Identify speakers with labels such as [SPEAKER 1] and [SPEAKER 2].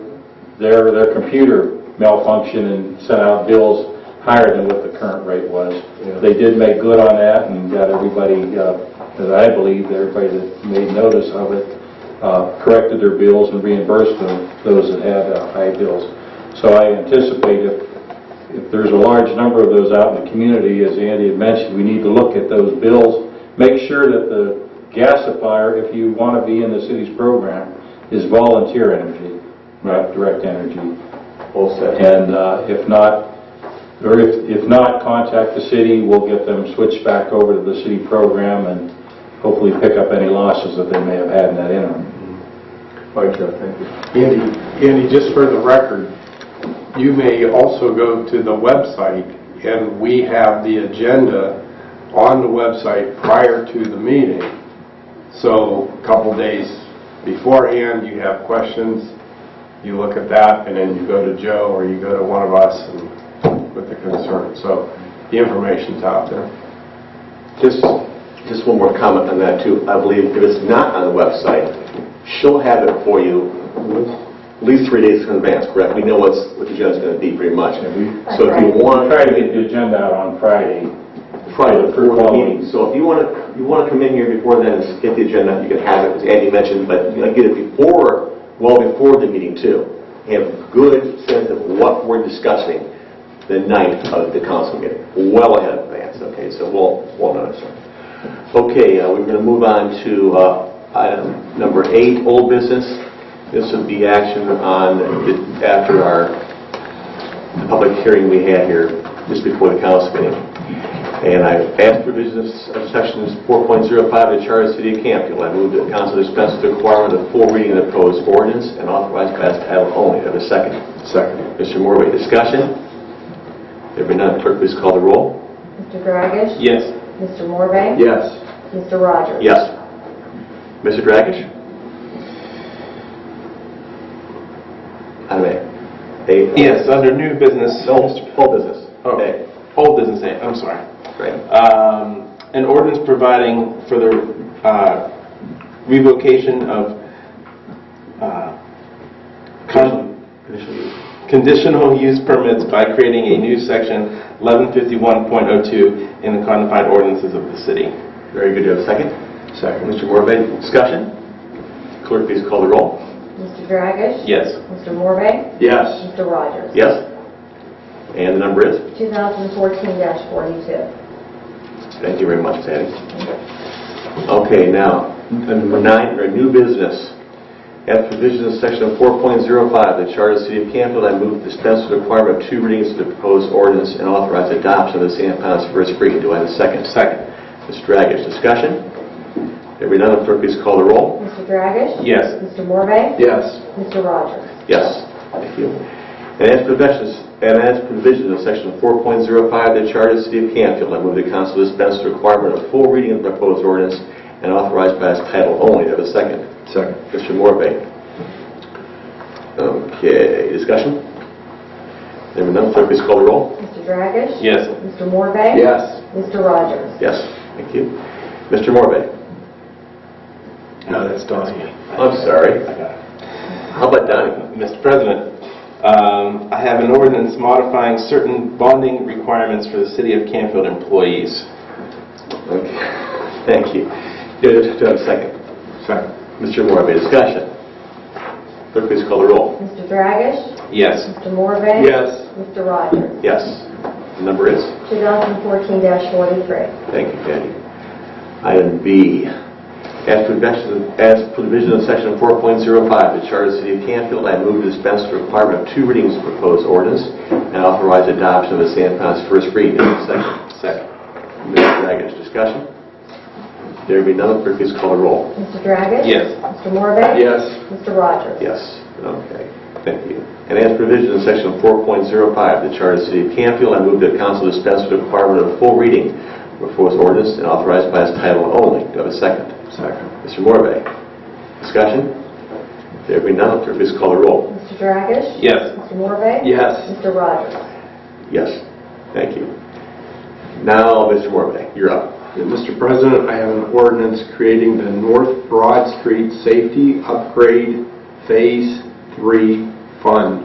[SPEAKER 1] their, their computer malfunctioned and sent out bills higher than what the current rate was.
[SPEAKER 2] Yeah.
[SPEAKER 1] They did make good on that and got everybody, uh, that I believe, everybody that made notice of it, uh, corrected their bills and reimbursed them, those that had uh, high bills. So I anticipate if, if there's a large number of those out in the community, as Andy had mentioned, we need to look at those bills, make sure that the gasifier, if you want to be in the city's program, is volunteer energy, not direct energy.
[SPEAKER 2] All set.
[SPEAKER 1] And uh, if not, or if, if not, contact the city, we'll get them switched back over to the city program and hopefully pick up any losses that they may have had in that interim.
[SPEAKER 2] All right, Jeff, thank you.
[SPEAKER 3] Andy, Andy, just for the record, you may also go to the website, and we have the agenda on the website prior to the meeting. So a couple days beforehand, you have questions, you look at that, and then you go to Joe or you go to one of us and- with the concern. So the information's out there.
[SPEAKER 4] Just, just one more comment on that too. I believe if it's not on the website, she'll have it for you at least three days in advance, correct? We know what's, what the agenda's gonna be pretty much. So if you
[SPEAKER 1] We'll
[SPEAKER 4] want,
[SPEAKER 1] try to get the agenda out on Friday.
[SPEAKER 4] Friday before the meeting, so if you wanna, you wanna come in here before then and get the agenda, you can have it, as Andy mentioned, but you know, get it before, well before the meeting too. Have good sense of what we're discussing the night of the council meeting, well ahead of advance, okay? So we'll, we'll notice it. Okay, uh, we're going to move on to uh, item number eight, old business. This would be action on, the- after our public hearing we had here, just before the council meeting. And I asked for business of sections 4.05 of the Charter of the City of Campfield. I move that council dispense with the requirement of full reading of the proposed ordinance and authorize by title only. Have a second.
[SPEAKER 3] Second.
[SPEAKER 4] Mr. Morway, discussion? There being none, clerk, please call the roll.
[SPEAKER 5] Mr. Dragish?
[SPEAKER 4] Yes.
[SPEAKER 5] Mr. Morvay?
[SPEAKER 2] Yes.
[SPEAKER 5] Mr. Rogers?
[SPEAKER 4] Yes. Mr. Dragish? Item A. A-
[SPEAKER 6] Yes, under new business,
[SPEAKER 4] No,
[SPEAKER 6] Mr.
[SPEAKER 4] full business.
[SPEAKER 6] Oh.
[SPEAKER 4] A.
[SPEAKER 6] old business name, I'm sorry.
[SPEAKER 4] Right.
[SPEAKER 6] Um, An ordinance providing for the uh, revocation of uh, con-
[SPEAKER 4] Conditional use.
[SPEAKER 6] conditional use permits by creating a new section 1151.02 in the codified ordinances of the city.
[SPEAKER 4] Very good, do you have a second? Second. Mr. Morvay, discussion? Clerk, please call the roll.
[SPEAKER 5] Mr. Dragish?
[SPEAKER 6] Yes.
[SPEAKER 5] Mr. Morvay?
[SPEAKER 4] Yes.
[SPEAKER 5] Mr. Rogers?
[SPEAKER 4] Yes? And the number is?
[SPEAKER 5] 2014-42.
[SPEAKER 4] Thank you very much, Patty. Okay, now, number nine, or new business. As provisions of section 4.05 of the Charter of the City of Campfield, I move dispense with the requirement of two readings of the proposed ordinance and authorize adoption of the same upon its first reading. Do I have a second? Second. Mr. Dragish, discussion? There being none, clerk, please call the roll.
[SPEAKER 5] Mr. Dragish?
[SPEAKER 6] Yes.
[SPEAKER 5] Mr. Morvay?
[SPEAKER 2] Yes.
[SPEAKER 5] Mr. Rogers?
[SPEAKER 4] Yes, thank you. And as provisions, and as provisions of section 4.05 of the Charter of the City of Canfield, I move the council dispense with the requirement of full reading of the proposed ordinance and authorize by its title only. Do I have a second?
[SPEAKER 2] Second.
[SPEAKER 4] Mr. Morvay. Okay, discussion? There being none, clerk, please call the roll.
[SPEAKER 5] Mr. Dragish?
[SPEAKER 6] Yes.
[SPEAKER 5] Mr. Morvay?
[SPEAKER 2] Yes.
[SPEAKER 5] Mr. Rogers?
[SPEAKER 4] Yes, thank you. Mr. Morvay?
[SPEAKER 6] No, that's Donnie.
[SPEAKER 4] I'm
[SPEAKER 6] I
[SPEAKER 4] sorry.
[SPEAKER 6] got it.
[SPEAKER 4] How about Donnie?
[SPEAKER 6] Mr. President, um, I have an ordinance modifying certain bonding requirements for the City of Canfield employees.
[SPEAKER 4] Okay, Thank you. Do I do I have a second?
[SPEAKER 3] Second.
[SPEAKER 4] Mr. Morvay, discussion? Clerk, please call the roll.
[SPEAKER 5] Mr. Dragish?
[SPEAKER 6] Yes.
[SPEAKER 5] Mr. Morvay?
[SPEAKER 2] Yes.
[SPEAKER 5] Mr. Rogers?
[SPEAKER 4] Yes. Number is?
[SPEAKER 5] 2014-43.
[SPEAKER 4] Thank you, Patty. Item B, as provision, as provision of section 4.05 of the Charter of the City of Canfield, I move to dispense with the requirement of two readings of proposed ordinance and authorize adoption of the San Ponce first reading. Second.
[SPEAKER 6] Second.
[SPEAKER 4] Mr. Dragish, discussion? There be none, clerk, please call the roll.
[SPEAKER 5] Mr. Dragish?
[SPEAKER 6] Yes.
[SPEAKER 5] Mr. Morvay?
[SPEAKER 2] Yes.
[SPEAKER 5] Mr. Rogers?
[SPEAKER 4] Yes, okay, thank you. And as provision in section 4.05 of the Charter of the City of Canfield, I move that council dispense with the requirement of full reading of proposed ordinance and authorize by its title only. Do I have a second?
[SPEAKER 2] Second.
[SPEAKER 4] Mr. Morvay, discussion? There be none, clerk, please call the roll.
[SPEAKER 5] Mr. Dragish?
[SPEAKER 6] Yes.
[SPEAKER 5] Mr. Morvay?
[SPEAKER 2] Yes.
[SPEAKER 5] Mr. Rogers?
[SPEAKER 4] Yes, thank you. Now, Mr. Morvay, you're up.
[SPEAKER 3] Yeah, Mr. President, I have an ordinance creating the North Broad Street Safety Upgrade Phase 3 Fund.